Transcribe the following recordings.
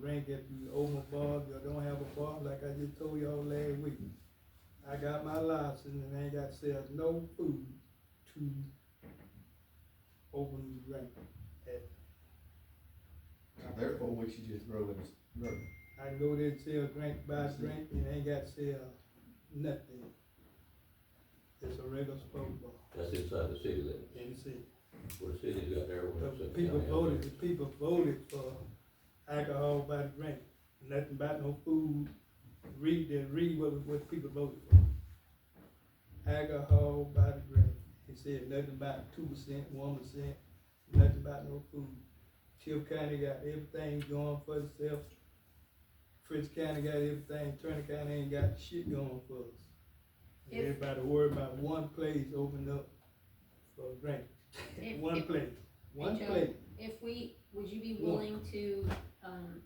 drink if you own a bar, if you don't have a bar, like I just told y'all last week. I got my license and I ain't got sell no food to open the drink. Therefore, we should just grow it, grow it. I go there and sell drink, buy drink, and ain't got sell nothing. It's a regular sport bar, That's inside the city limits, and see, where the city's got their the own. section people down there. voted, the people voted for alcohol by drink, nothing about no food. Read, the read what, what people voted for. Alcohol by the drink, he said nothing about two percent, one percent, nothing about no food. Tiff County got everything going for itself. Prince County got everything, Turner County ain't got shit going for us. And If- Everybody worried about one place opened up for drink, If- one if- place, one Joe, place. oh, If we, would you be Look. willing to, um,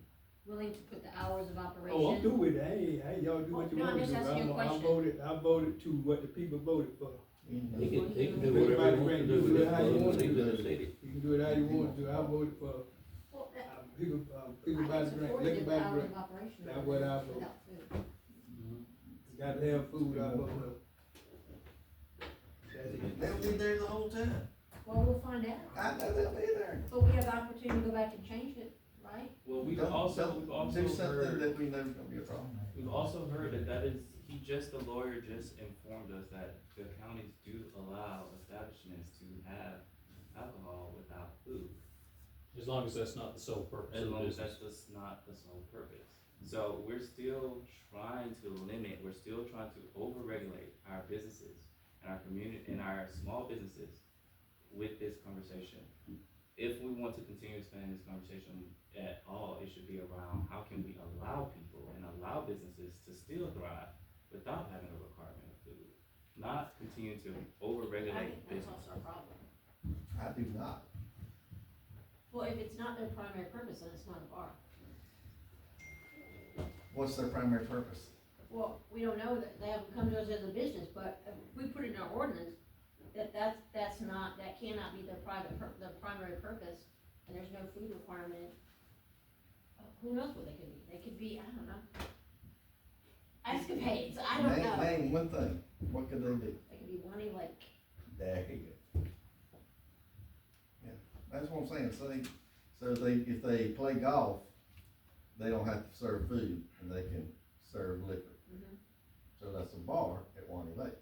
willing to put the hours of operation? Oh, I'm through with it, hey, hey, y'all do what you Oh, No, I'm want to just do, asking I'm, you a I question. voted, I voted to what the people voted for. He And can, he can do whatever he wants to do with his money when he's in the city. You can do it how you want to, I voted for, Well, uh, that- people, uh, people I by the can drink, support liquor it by the without drink, an operation That's what I vote. without food. gotta have food, I voted. That's it. They'll be there the whole time. Well, we'll find out, I know they'll be there. but we have the opportunity to go back and change it, right? Well, we've Don't- also, don't we've also Do something heard, that we know is gonna be a problem. we've also heard that that is, he just, the lawyer just informed us that the counties do allow establishments to have alcohol without food. As long as that's not the sole purpose As of the long as business. that's just not the sole purpose. So we're still trying to limit, we're still trying to overregulate our businesses and our community and our small businesses with this conversation. If we want to continue expanding this conversation at all, it should be around how can we allow people and allow businesses to still thrive without having a requirement of food? Not continue to I overregulate think that's business. also a problem. I do not. Well, if it's not their primary purpose, then it's not a bar. What's their primary purpose? Well, we don't know that, they haven't come to us as a business, but uh, we put it in our ordinance, that, that's, that's not, that cannot be their private, pur- their primary purpose, and there's no food requirement. Uh, Who knows what they could be, they could be, I don't know. Escapades, I don't Name- know, Name one thing, what could they do? they could be wanting like, There you go. Yeah, that's what I'm saying, so they, so they, if they play golf, they don't have to serve food, and they can serve liquor. Mhm. So that's a bar at Wani Lake.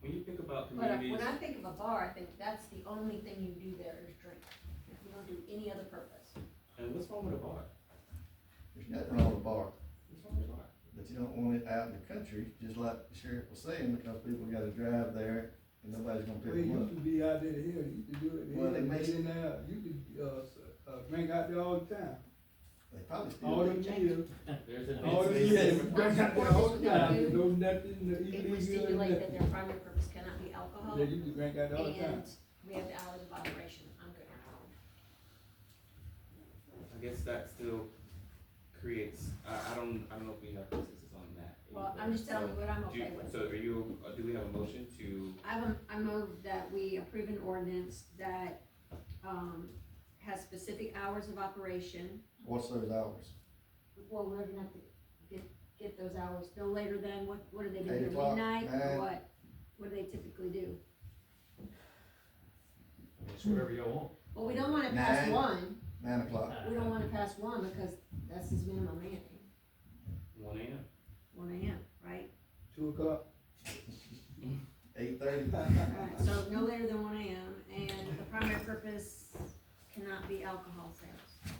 When you think about but I- communities. when I think of a bar, I think that's the only thing you do there is drink. You don't do any other purpose. And what's wrong with a bar? There's nothing wrong with a bar, What's wrong with a bar? but you don't want it out in the country, just like the sheriff was saying, because people gotta drive there, and nobody's gonna Well, pick you them up. used to be out there to hell, you used to do it, Well, they they may- in there, you could, uh, s- uh, drink out there all the time, They probably still all do. the meals, There's an. Oh, all the years, drink out there all the time, no nothing If we illegal, or stipulate that nothing. their primary purpose cannot be alcohol, Yeah, you could drink out there all the time. And we have the hours of operation, I'm good. I guess that still creates, I, I don't, I don't know if we have consensus on that. Well, either. I'm just telling you So, what I'm do you- okay with. So are you, uh, do we have a motion to, I have, a- I move that we approve an ordinance that, um, has specific hours of operation. What's those hours? Well, we're gonna have to get, get those hours, no later than, what, what do they do, Eight till o'clock, midnight, or nine. what? What do they typically do? It's whatever y'all want. Well, we don't wanna pass Nine. one, Nine o'clock. we don't wanna pass one, because that's his minimum man, one AM? one AM, right? Two o'clock, Eight thirty. Alright, so no later than one AM, and the primary purpose cannot be alcohol sales.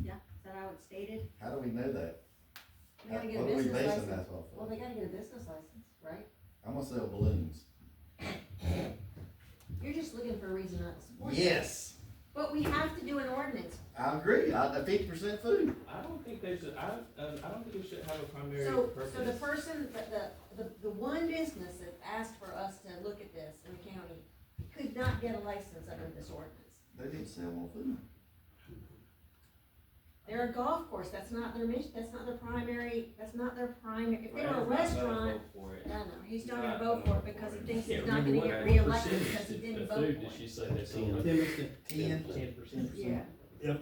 Yeah, is that how it's stated? How do we know that? They gotta get a What are we business basing license. that off Well, of? they gotta get a business license, right? I'm gonna sell balloons. You're just looking for a reason not to support it. Yes, But we have to do an ordinance, I agree, I, fifty percent food. I don't think they should, I, um, I don't think it should have a primary so, purpose. so the person, the, the, the, the one business that asked for us to look at this in the county could not get a license under this ordinance. They didn't sell more food. They're a golf course, that's not their mission, that's not their primary, that's not their primary, if they were a Brandon's not gonna restaurant, vote for it. No, no, he's not gonna Not vote for gonna it because he vote. thinks Can't he's not gonna remember get what- reelected what because he percentage didn't of vote food did for she it. say that's on? Timothy, Ten. Ten. Ten percent. Yeah,